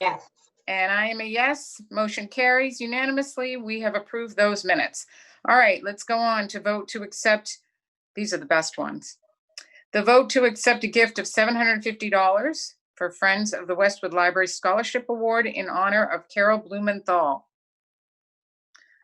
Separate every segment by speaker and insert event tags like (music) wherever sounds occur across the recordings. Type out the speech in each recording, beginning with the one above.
Speaker 1: Yes.
Speaker 2: And I am a yes. Motion carries unanimously. We have approved those minutes. All right, let's go on to vote to accept. These are the best ones. The vote to accept a gift of $750 for Friends of the Westwood Library Scholarship Award in honor of Carol Blumenthal.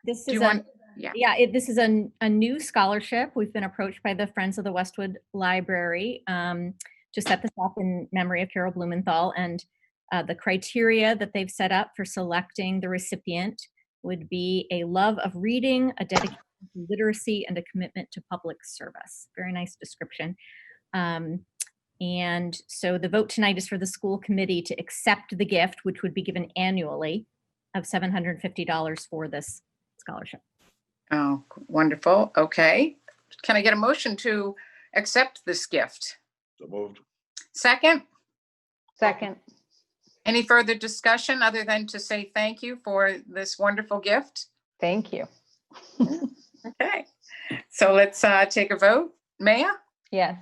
Speaker 3: This
Speaker 2: Do you
Speaker 3: is
Speaker 2: want,
Speaker 3: a, yeah, it, this is a, n- a new scholarship. We've been approached by the Friends of the Westwood Library um, to set this up in memory of Carol Blumenthal. And uh, the criteria that they've set up for selecting the recipient would be a love of reading, a dedication to literacy, and a commitment to public service. Very nice description. Um, and so the vote tonight is for the school committee to accept the gift, which would be given annually of $750 for this scholarship.
Speaker 2: oh, wonderful. Okay. Can I get a motion to accept this gift?
Speaker 4: So moved.
Speaker 2: Second?
Speaker 1: Second.
Speaker 2: Any further discussion other than to say thank you for this wonderful gift?
Speaker 1: Thank you.
Speaker 2: Okay, so let's uh, take a vote. Maya,
Speaker 1: Yes.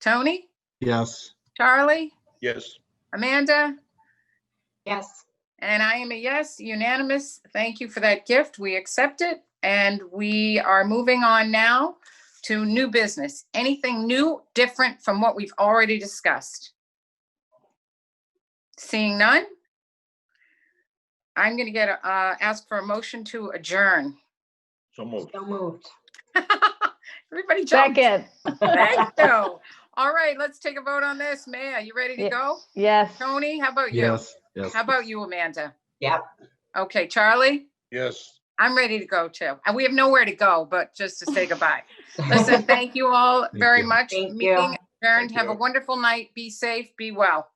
Speaker 2: Tony,
Speaker 5: yes,
Speaker 2: Charlie,
Speaker 4: Yes,
Speaker 2: Amanda,
Speaker 1: Yes.
Speaker 2: and I am a yes, unanimous. Thank you for that gift. We accept it. And we are moving on now to new business. Anything new, different from what we've already discussed? Seeing none? I'm going to get, a- uh, ask for a motion to adjourn. (laughs)
Speaker 4: so moved.
Speaker 1: So moved.
Speaker 2: Everybody jumped.
Speaker 1: Second.
Speaker 2: Thank you. All right, let's take a vote on this. Maya, you ready to
Speaker 1: Yeah.
Speaker 2: go?
Speaker 1: Yes.
Speaker 2: Tony, how about you?
Speaker 5: yes, yes.
Speaker 2: How about you, Amanda?
Speaker 1: Yep.
Speaker 2: Okay, Charlie,
Speaker 4: Yes,
Speaker 2: I'm ready to go too. And we have nowhere to go, but just to say goodbye. Listen, thank you all
Speaker 5: (laughs) Thank
Speaker 2: very
Speaker 5: you.
Speaker 2: much.
Speaker 1: Thank you.
Speaker 2: Meeting adjourned.
Speaker 4: Thank
Speaker 2: Have a
Speaker 4: you.
Speaker 2: wonderful night. Be safe, be well.